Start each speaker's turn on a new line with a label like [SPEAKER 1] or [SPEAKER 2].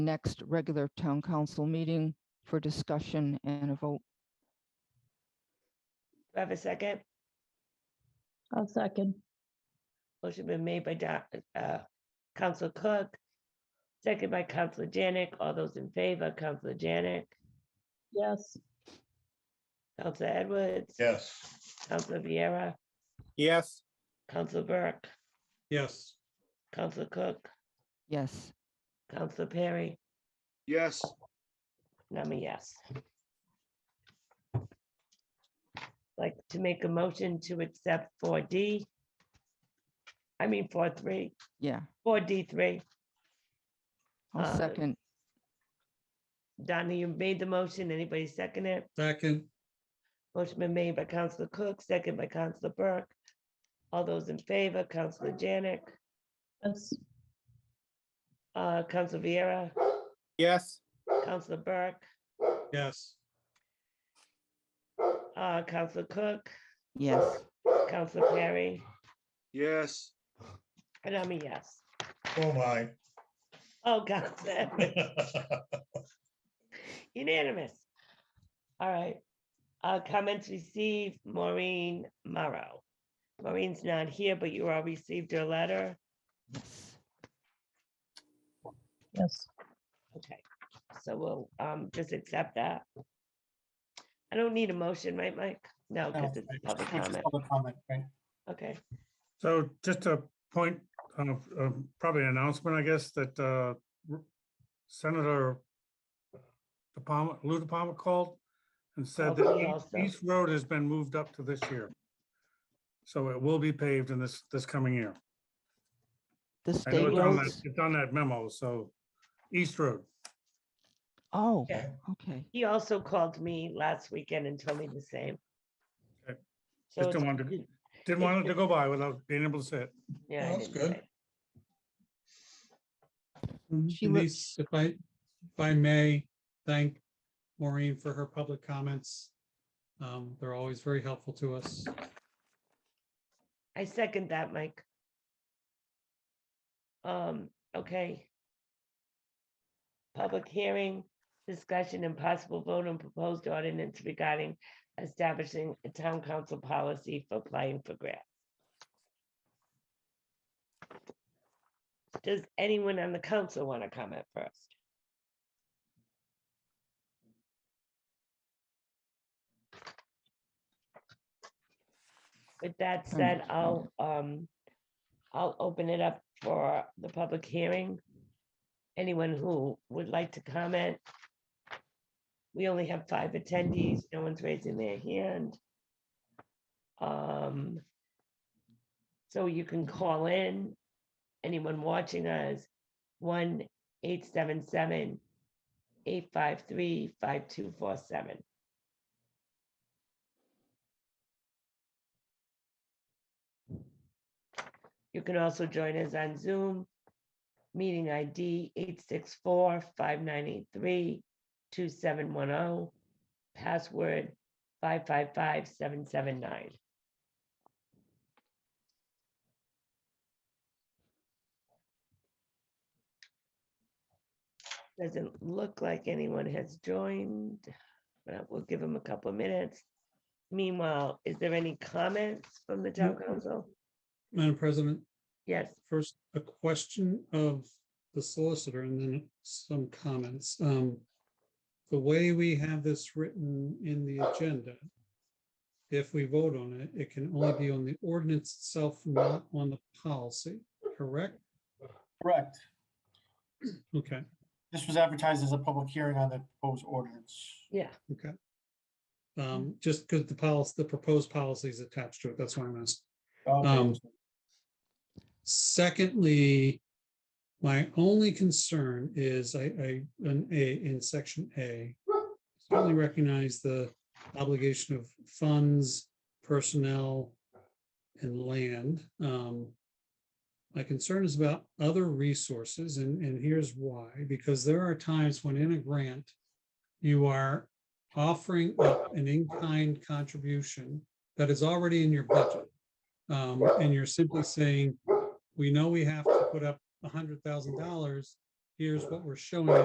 [SPEAKER 1] next regular town council meeting for discussion and a vote.
[SPEAKER 2] Do I have a second?
[SPEAKER 3] I'll second.
[SPEAKER 2] Motion been made by Doc- uh, Council Cook, second by Council Janik. All those in favor, Council Janik,
[SPEAKER 3] Yes.
[SPEAKER 2] Council Edwards,
[SPEAKER 4] Yes.
[SPEAKER 2] Council Viera,
[SPEAKER 5] Yes.
[SPEAKER 2] Council Burke,
[SPEAKER 5] Yes.
[SPEAKER 2] Council Cook,
[SPEAKER 1] Yes,
[SPEAKER 2] Council Perry,
[SPEAKER 4] Yes.
[SPEAKER 2] and I'm a yes. Like to make a motion to accept four D. I mean, four three,
[SPEAKER 1] yeah,
[SPEAKER 2] four D three.
[SPEAKER 1] I'll
[SPEAKER 2] Uh,
[SPEAKER 1] second.
[SPEAKER 2] Donna, you made the motion. Anybody second it?
[SPEAKER 5] Second.
[SPEAKER 2] Motion been made by Counselor Cook, second by Counselor Burke. All those in favor, Counselor Janik,
[SPEAKER 3] Yes.
[SPEAKER 2] uh, Counselor Viera,
[SPEAKER 5] Yes.
[SPEAKER 2] Counselor Burke,
[SPEAKER 5] Yes.
[SPEAKER 2] uh, Counselor Cook,
[SPEAKER 1] Yes,
[SPEAKER 2] Counselor Perry,
[SPEAKER 4] Yes.
[SPEAKER 2] and I'm a yes.
[SPEAKER 4] Oh, my.
[SPEAKER 2] Oh, Counselor, Edwards, unanimous. All right. Uh, comments received, Maureen Morrow. Maureen's not here, but you all received her letter.
[SPEAKER 1] yes,
[SPEAKER 3] Yes.
[SPEAKER 2] Okay, so we'll, um, just accept that. I don't need a motion, right, Mike? No, because it's public comment. Okay,
[SPEAKER 6] So just a point of, of probably an announcement, I guess, that uh, R- Senator De Palma, Lou De Palma called and said
[SPEAKER 2] Oh, he
[SPEAKER 6] that
[SPEAKER 2] also-
[SPEAKER 6] East Road has been moved up to this year. So it will be paved in this, this coming year.
[SPEAKER 1] the
[SPEAKER 6] I know
[SPEAKER 1] state
[SPEAKER 6] it's on that,
[SPEAKER 1] roads.
[SPEAKER 6] it's on that memo, so East Road.
[SPEAKER 1] Oh,
[SPEAKER 2] Yeah.
[SPEAKER 1] okay,
[SPEAKER 2] he also called me last weekend and told me the same.
[SPEAKER 6] Okay.
[SPEAKER 2] So,
[SPEAKER 6] Just
[SPEAKER 2] it's-
[SPEAKER 6] don't want to- Didn't want it to go by without being able to say it.
[SPEAKER 2] yeah. I
[SPEAKER 5] Well, that's
[SPEAKER 2] didn't
[SPEAKER 5] good.
[SPEAKER 2] say.
[SPEAKER 1] She was-
[SPEAKER 7] Denise, if I, if I may, thank Maureen for her public comments. Um, They're always very helpful to us.
[SPEAKER 2] I second that, Mike. Um, okay. Public hearing, discussion and possible vote on proposed ordinance regarding establishing a town council policy for applying for grants. Does anyone on the council want to comment first? With that said, I'll, um, I'll open it up for the public hearing. Anyone who would like to comment. We only have five attendees. No one's raising their hand. Um, so you can call in, anyone watching us, one 877 853 5247 You can also join us on Zoom. Meeting ID 864-5983-2710. oh, Password five five five seven seven nine. Doesn't look like anyone has joined, but we'll give them a couple of minutes. Meanwhile, is there any comments from the town council?
[SPEAKER 7] Madam President,
[SPEAKER 2] Yes.
[SPEAKER 7] first, a question of the solicitor and then some comments. Um, The way we have this written in the agenda, if we vote on it, it can only be on the ordinance itself, not on the policy, correct?
[SPEAKER 8] Correct.
[SPEAKER 7] Okay,
[SPEAKER 8] This was advertised as a public hearing on the proposed ordinance.
[SPEAKER 2] Yeah,
[SPEAKER 7] okay. Um, Just because the policy, the proposed policy is attached to it, that's why I'm asking. Um,
[SPEAKER 8] Okay.
[SPEAKER 7] Secondly, my only concern is I, I, in A, in section A, certainly recognize the obligation of funds, personnel, and land. Um, My concern is about other resources, and, and here's why, because there are times when in a grant, you are offering up an in-kind contribution that is already in your budget. Um, And you're simply saying, we know we have to put up hundred thousand dollars. Here's what we're showing